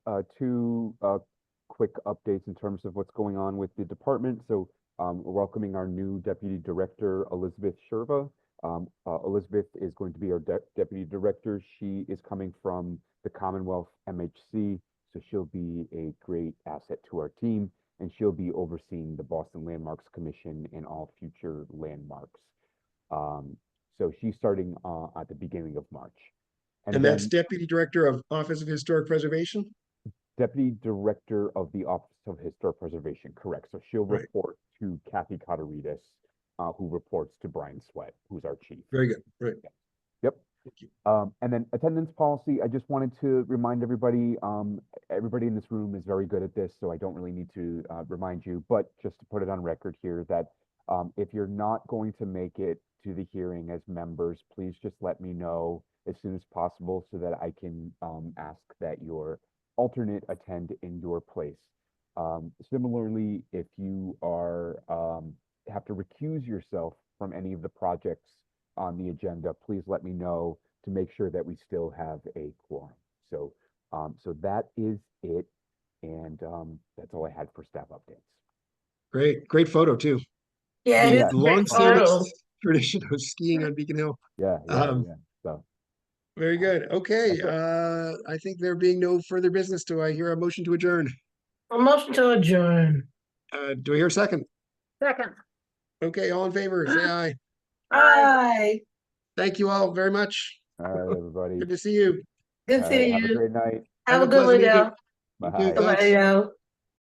uh, two uh, quick updates in terms of what's going on with the department. So um, we're welcoming our new deputy director, Elizabeth Sherva. Um, uh, Elizabeth is going to be our de- deputy director. She is coming from the Commonwealth MHC, so she'll be a great asset to our team, and she'll be overseeing the Boston Landmarks Commission and all future landmarks. Um, so she's starting uh, at the beginning of March. And that's then- Deputy Director of Office of Historic Preservation? Deputy Director of the Office of Historic Preservation, correct. So she'll Right. report to Kathy Coteridas, uh, who reports to Brian Sweat, who's our chief. Very good, right. Yep. Thank you. Um, and then attendance policy, I just wanted to remind everybody, um, everybody in this room is very good at this, so I don't really need to, uh, remind you, but just to put it on record here that, um, if you're not going to make it to the hearing as members, please just let me know as soon as possible so that I can, um, ask that your alternate attend in your place. Um, similarly, if you are, um, have to recuse yourself from any of the projects on the agenda, please let me know to make sure that we still have a quorum. So, um, so that is it. And, um, that's all I had for staff updates. Great, great photo too. Yeah, it Yeah. is a great Long-standing photo. tradition of skiing on Beacon Hill. Yeah, yeah, Um, yeah. So, Very good. Okay, uh, I think there being no further business, do I hear a motion to adjourn? A motion to adjourn. Uh, do I hear a second? Second. Okay, all in favor, say aye. Aye. Thank you all very much. all right, everybody. Good to see you. Good All right, seeing Have a you. great night. Have a good one, pleasant Dale. evening. You too. Bye. Thanks. Bye, Dale.